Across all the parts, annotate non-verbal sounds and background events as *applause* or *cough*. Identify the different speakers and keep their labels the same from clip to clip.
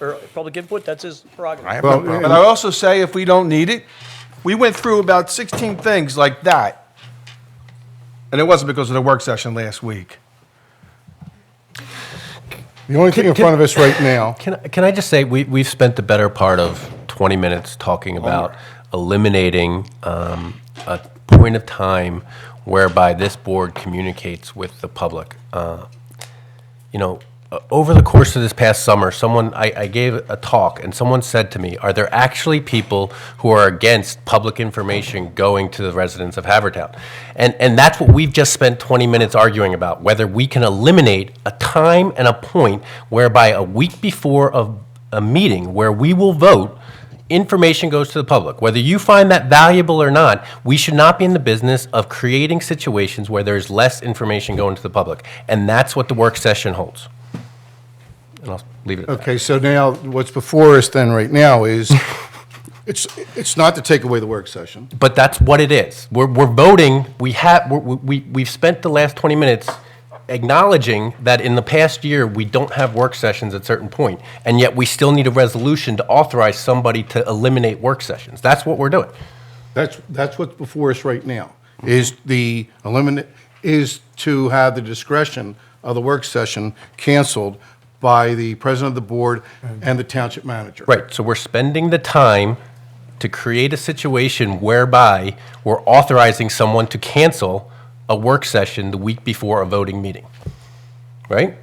Speaker 1: or public input, that's his prerogative.
Speaker 2: I have no
Speaker 3: Well,
Speaker 2: problem.
Speaker 3: but I also say if we don't need it, we went through about 16 things like that. And it wasn't because of the work session last week.
Speaker 2: The only thing in front of us right now,
Speaker 4: Can, can I just say, we, we've spent the better part of 20 minutes talking about eliminating um, a point of time whereby this board communicates with the public. Uh, You know, uh, over the course of this past summer, someone, I, I gave a talk, and someone said to me, are there actually people who are against public information going to the residents of Havertown? And, and that's what we've just spent 20 minutes arguing about, whether we can eliminate a time and a point whereby a week before of a meeting where we will vote, information goes to the public. Whether you find that valuable or not, we should not be in the business of creating situations where there's less information going to the public. And that's what the work session holds. And I'll leave it at that.
Speaker 2: okay, so now what's before us then right now *laughs* is, it's, it's not to take away the work session.
Speaker 4: But that's what it is. We're, we're voting, we have, we, we, we've spent the last 20 minutes acknowledging that in the past year, we don't have work sessions at certain point, and yet we still need a resolution to authorize somebody to eliminate work sessions. That's what we're doing.
Speaker 2: That's, that's what's before us right now, is the eliminate, is to have the discretion of the work session canceled by the president of the board and the township manager.
Speaker 4: Right, so we're spending the time to create a situation whereby we're authorizing someone to cancel a work session the week before a voting meeting, right?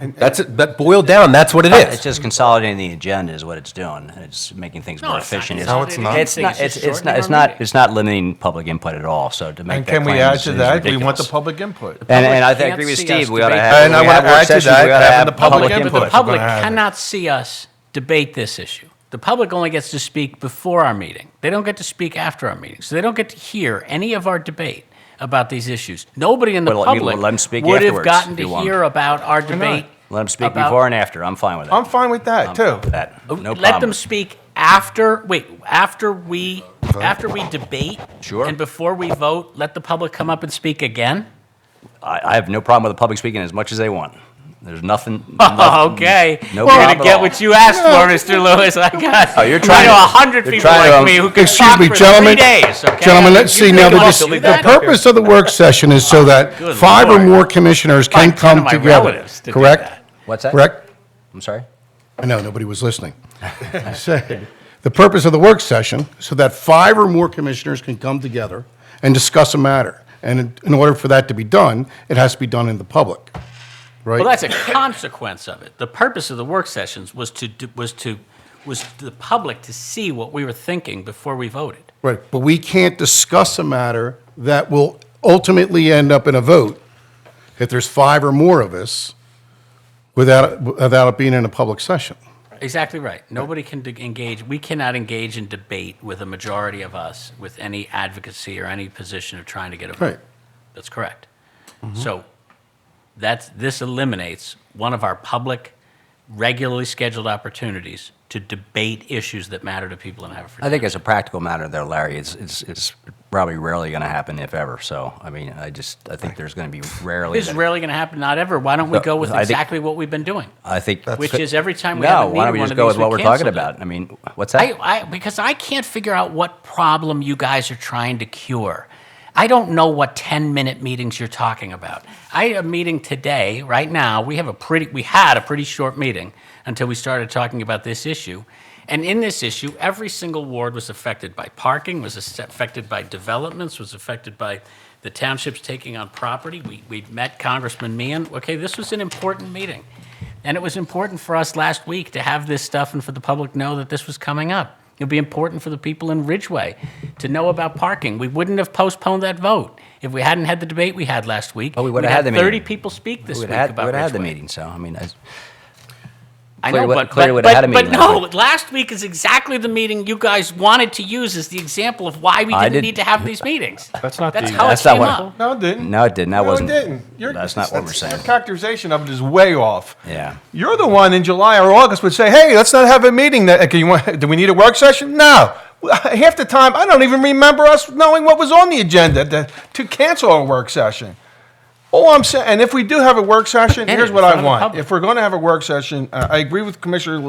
Speaker 4: That's, it. that boiled down, that's what it
Speaker 5: It's
Speaker 4: is.
Speaker 5: just consolidating the agenda is what it's doing. It's making things more
Speaker 6: it's not
Speaker 5: efficient.
Speaker 6: No, it's not.
Speaker 5: It's not, it's, it's not, it's not, it's not limiting public input at all, so to make
Speaker 3: And
Speaker 5: that claim
Speaker 3: can
Speaker 5: is
Speaker 3: we add to
Speaker 5: is
Speaker 3: that? We want the
Speaker 5: ridiculous.
Speaker 3: public input.
Speaker 5: And, and I
Speaker 6: Public
Speaker 5: agree with
Speaker 6: can't see
Speaker 5: Steve,
Speaker 6: us
Speaker 5: we ought to
Speaker 6: debate.
Speaker 5: have.
Speaker 3: And I
Speaker 5: we
Speaker 3: wanna
Speaker 5: have work
Speaker 3: add to
Speaker 5: sessions,
Speaker 3: that,
Speaker 5: we oughta
Speaker 3: having
Speaker 5: have
Speaker 3: the public input.
Speaker 6: But the
Speaker 3: If we're
Speaker 6: public
Speaker 3: gonna have it.
Speaker 6: cannot see us debate this issue. The public only gets to speak before our meeting. They don't get to speak after our meeting. So they don't get to hear any of our debate about these issues. Nobody in the
Speaker 5: Well, let me-
Speaker 6: public
Speaker 5: let 'em speak
Speaker 6: would have
Speaker 5: afterwards,
Speaker 6: gotten
Speaker 5: if you
Speaker 6: to
Speaker 5: want.
Speaker 6: hear about our debate.
Speaker 5: Let them speak
Speaker 6: about- Oh,
Speaker 5: before and after. I'm fine with that.
Speaker 3: I'm fine with that, too.
Speaker 5: With that. No problem.
Speaker 6: Let them speak after, wait, after we, after we debate?
Speaker 5: Sure.
Speaker 6: And before we vote, let the public come up and speak again?
Speaker 5: I, I have no problem with the public speaking as much as they want. There's nothing.
Speaker 6: *laughs* Oh, okay.
Speaker 5: No
Speaker 6: We're
Speaker 5: problem
Speaker 6: gonna
Speaker 5: at
Speaker 6: get
Speaker 5: all.
Speaker 6: what you asked for, Mr. Lewis. I got.
Speaker 5: *laughs* Oh, you're trying
Speaker 6: I know
Speaker 5: to-
Speaker 6: a hundred
Speaker 5: you're
Speaker 6: people
Speaker 5: trying to,
Speaker 6: like
Speaker 5: um,
Speaker 6: me who could
Speaker 2: Excuse
Speaker 6: talk
Speaker 2: me,
Speaker 6: for
Speaker 2: gentlemen.
Speaker 6: three days. Okay.
Speaker 2: Gentlemen, let's
Speaker 6: You
Speaker 2: see, now, the
Speaker 6: really
Speaker 2: dis-
Speaker 6: want to do
Speaker 2: the
Speaker 6: that?
Speaker 2: purpose of the work session is so that
Speaker 6: Good
Speaker 2: five or
Speaker 6: Lord.
Speaker 2: more commissioners can
Speaker 6: Like ten
Speaker 2: come
Speaker 6: of my
Speaker 2: together,
Speaker 6: relatives to do
Speaker 2: correct?
Speaker 6: that.
Speaker 5: What's that?
Speaker 2: Correct?
Speaker 5: I'm sorry?
Speaker 2: I know, nobody was listening. I said, the purpose of the work session, so that five or more commissioners can come together and discuss a matter. And in- in order for that to be done, it has to be done in the public, right?
Speaker 6: Well, that's a consequence of it. The purpose of the work sessions was to, do- was to, was the public to see what we were thinking before we voted.
Speaker 2: Right, but we can't discuss a matter that will ultimately end up in a vote if there's five or more of us without, without it being in a public session.
Speaker 6: Exactly right. Nobody can de- engage, we cannot engage in debate with a majority of us with any advocacy or any position of trying to get a vote.
Speaker 2: Right.
Speaker 6: That's correct.
Speaker 5: Mm-hmm.
Speaker 6: So that's, this eliminates one of our public, regularly scheduled opportunities to debate issues that matter to people in
Speaker 5: I
Speaker 6: Haverford.
Speaker 5: think as a practical matter, though, Larry, it's it's, it's probably rarely going to happen, if ever. So, I mean, I just I think there's going to be rarely.
Speaker 6: This is
Speaker 5: that-
Speaker 6: rarely going to happen, not ever. Why don't we
Speaker 5: No,
Speaker 6: go with
Speaker 5: I think-
Speaker 6: exactly what we've been doing?
Speaker 5: I think
Speaker 6: Which is every time we have
Speaker 5: no.
Speaker 6: a
Speaker 5: Why don't
Speaker 6: meeting,
Speaker 5: we
Speaker 6: one
Speaker 5: just
Speaker 6: of
Speaker 5: go
Speaker 6: these,
Speaker 5: with
Speaker 6: we
Speaker 5: what we're talking
Speaker 6: canceled it.
Speaker 5: about? I mean, what's that?
Speaker 6: I, I, because I can't figure out what problem you guys are trying to cure. I don't know what 10 minute meetings you're talking about. I had a meeting today, right now, we have a pretty, we had a pretty short meeting until we started talking about this issue. And in this issue, every single ward was affected by parking, was as- affected by developments, was affected by the townships taking on property. We, we met Congressman Meehan. Okay, this was an important meeting. And it was important for us last week to have this stuff and for the public know that this was coming up. It'll be important for the people in Ridgeway to know about parking. We wouldn't have postponed that vote if we hadn't had the debate we had last week.
Speaker 5: Oh, we would've
Speaker 6: We'd
Speaker 5: had the meeting.
Speaker 6: Thirty people speak this
Speaker 5: we
Speaker 6: week
Speaker 5: would have
Speaker 6: about
Speaker 5: had the
Speaker 6: Ridgeway.
Speaker 5: meeting. So, I mean, I,
Speaker 6: I
Speaker 5: Clearly
Speaker 6: know,
Speaker 5: would-
Speaker 6: but,
Speaker 5: clearly
Speaker 6: but,
Speaker 5: would've had
Speaker 6: but,
Speaker 5: a
Speaker 6: but
Speaker 5: meeting last
Speaker 6: no,
Speaker 5: week.
Speaker 6: last week is exactly the meeting you guys wanted to use as the example of why we
Speaker 5: I
Speaker 6: didn't
Speaker 5: did-
Speaker 6: need to have these meetings.
Speaker 3: That's not
Speaker 6: That's
Speaker 3: the-
Speaker 6: how
Speaker 5: That's
Speaker 6: it
Speaker 5: not
Speaker 6: came
Speaker 5: what-
Speaker 6: up.
Speaker 3: No, it didn't.
Speaker 5: No, it didn't. That
Speaker 3: No,
Speaker 5: wasn't-
Speaker 3: it didn't. You're-
Speaker 5: that's not what we're saying.
Speaker 3: Your characterization of it is way off.
Speaker 5: Yeah.
Speaker 3: You're the one in July or August would say, "Hey, let's not have a meeting. That can you want? *laughs* Do we need a work session? No." *laughs* Half the time, I don't even remember us knowing what was on the agenda to, to cancel a work session. All I'm saying, and if we do have a work session,
Speaker 6: And
Speaker 3: here's
Speaker 6: in
Speaker 3: what I
Speaker 6: front of the
Speaker 3: want.
Speaker 6: public.
Speaker 3: If we're going to have a work session, uh, I agree with Commissioner